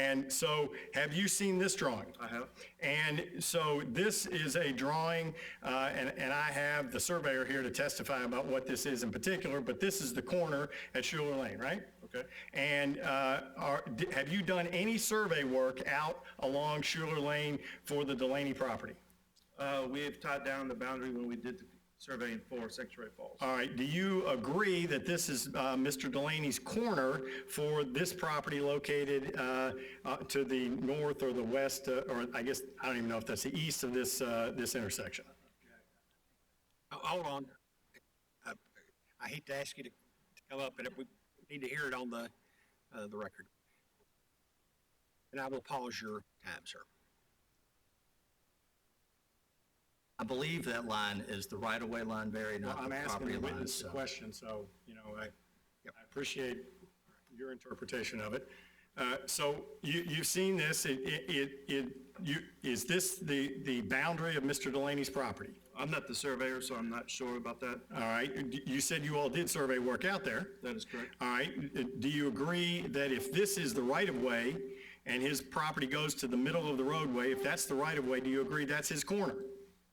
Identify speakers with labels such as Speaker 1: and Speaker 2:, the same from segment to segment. Speaker 1: And so, have you seen this drawing? I have. And so, this is a drawing, uh, and, and I have the surveyor here to testify about what this is in particular, but this is the corner at Schuler Lane, right? Okay. And uh, are, d- have you done any survey work out along Schuler Lane for the Delaney property?
Speaker 2: Uh, we have tied down the boundary when we did the surveying for Sanctuary Falls.
Speaker 1: All right, do you agree that this is uh, Mr. Delaney's corner for this property located uh, uh, to the north or the west, uh, or I guess, I don't even know if that's the east of this, uh, this intersection?
Speaker 3: Oh, Hold on. I- I hate to ask you to come up, but we need to hear it on the, uh, the record. And I will pause your time, sir.
Speaker 4: I believe that line is the right-of-way line, Barry,
Speaker 1: Well,
Speaker 4: not
Speaker 1: I'm
Speaker 4: the
Speaker 1: asking
Speaker 4: property
Speaker 1: the
Speaker 4: line.
Speaker 1: witness the
Speaker 4: so-
Speaker 1: question, so, you know, I I appreciate your interpretation of it. Uh, So you, you've seen this, it, it- it, it, you, is this the, the boundary of Mr. Delaney's property?
Speaker 2: I'm not the surveyor, so I'm not sure about that.
Speaker 1: All right, you- you said you all did survey work out there.
Speaker 2: That is correct.
Speaker 1: All right, uh, do you agree that if this is the right-of-way and his property goes to the middle of the roadway, if that's the right-of-way, do you agree that's his corner?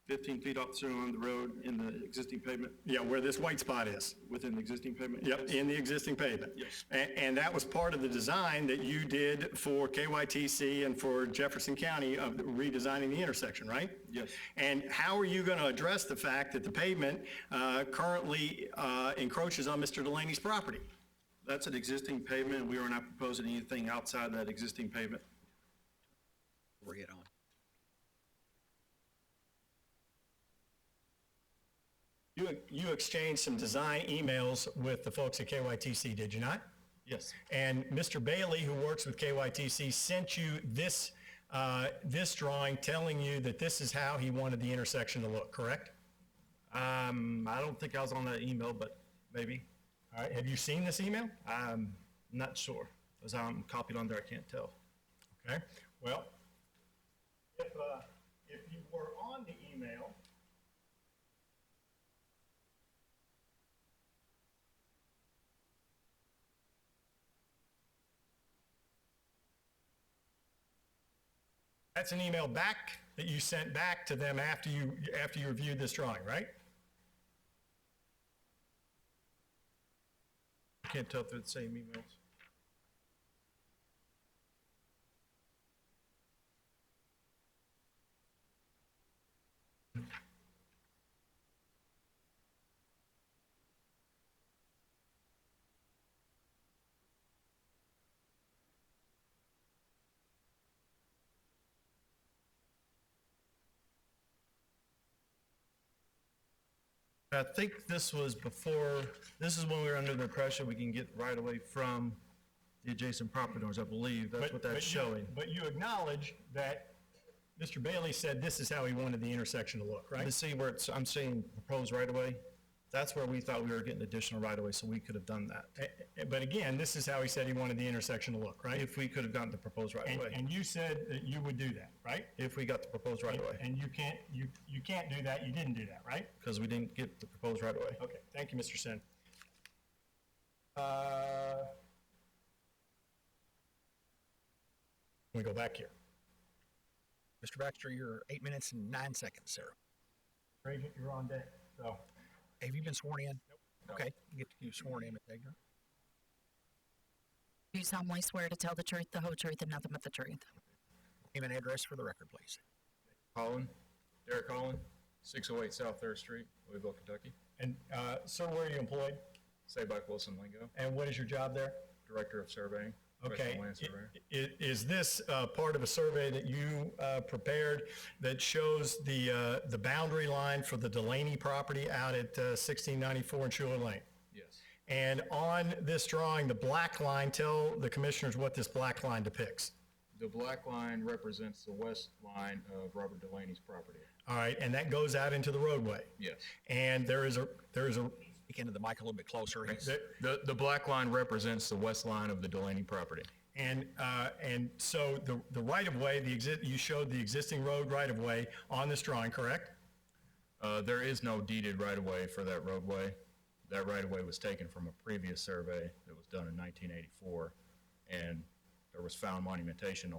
Speaker 2: Fifteen feet off the center line of the road in the existing pavement,
Speaker 1: Yeah, where this white spot is.
Speaker 2: within the existing pavement.
Speaker 1: Yep, in the existing pavement.
Speaker 2: Yes.
Speaker 1: And, and that was part of the design that you did for KYTC and for Jefferson County of redesigning the intersection, right?
Speaker 2: Yes.
Speaker 1: And how are you going to address the fact that the pavement uh, currently uh, encroaches on Mr. Delaney's property?
Speaker 2: That's an existing pavement. We are not proposing anything outside that existing pavement.
Speaker 3: Bring it on.
Speaker 1: You, you exchanged some design emails with the folks at KYTC, did you not?
Speaker 2: Yes.
Speaker 1: And Mr. Bailey, who works with KYTC, sent you this, uh, this drawing telling you that this is how he wanted the intersection to look, correct?
Speaker 2: Um, I don't think I was on that email, but maybe.
Speaker 1: All right, have you seen this email? Um,
Speaker 2: I'm not sure. As I'm copied on there, I can't tell.
Speaker 1: Okay, well, if, uh, if you were on the email. That's an email back that you sent back to them after you, after you reviewed this drawing, right?
Speaker 2: I Can't tell through the same emails. I think this was before, this is when we were under the impression we can get right away from the adjacent property owners, I believe. That's
Speaker 1: But-
Speaker 2: what that's
Speaker 1: but you-
Speaker 2: showing.
Speaker 1: But you acknowledge that Mr. Bailey said this is how he wanted the intersection to look, right?
Speaker 2: To see where it's, I'm seeing proposed right away. That's where we thought we were getting additional right away, so we could have done that.
Speaker 1: Eh, eh, But again, this is how he said he wanted the intersection to look, right?
Speaker 2: If we could have gotten the proposed right
Speaker 1: And,
Speaker 2: away,
Speaker 1: and you said that you would do that, right?
Speaker 2: if we got the proposed right away,
Speaker 1: And you can't, you, you can't do that, you didn't do that, right?
Speaker 2: because we didn't get the proposed right away.
Speaker 1: Okay, thank you, Mr. Sin. Uh, Let me go back here.
Speaker 3: Mr. Baxter, you're eight minutes and nine seconds, sir.
Speaker 1: Agent, you're on deck, so.
Speaker 3: Have you been sworn in? Okay, you get to be sworn in, Ms. Egner.
Speaker 5: Do you solemnly swear to tell the truth, the whole truth, and nothing but the truth?
Speaker 3: Name and address for the record, please.
Speaker 6: Holland, Derek Holland, 608 South Third Street, Louisville, Kentucky.
Speaker 1: And, uh, sir, where are you employed?
Speaker 6: Saved by Wilson Lingo,
Speaker 1: And what is your job there?
Speaker 6: Director of Surveying,
Speaker 1: Okay.
Speaker 6: Professional Land
Speaker 1: i-
Speaker 6: Surveyor.
Speaker 1: i- Is this uh, part of a survey that you uh, prepared that shows the, uh, the boundary line for the Delaney property out at uh, 1694 and Schuler Lane?
Speaker 6: Yes.
Speaker 1: And on this drawing, the black line, tell the commissioners what this black line depicts.
Speaker 6: The black line represents the west line of Robert Delaney's property.
Speaker 1: All right, and that goes out into the roadway.
Speaker 6: Yes.
Speaker 1: And there is a, there is a,
Speaker 3: Speak into the mic a little bit closer. He's-
Speaker 6: The, the- the black line represents the west line of the Delaney property.
Speaker 1: and, uh, and so the, the right-of-way, the exist, you showed the existing road right-of-way on this drawing, correct?
Speaker 6: Uh, There is no deeded right-of-way for that roadway. That right-of-way was taken from a previous survey that was done in 1984, and there was found monumentation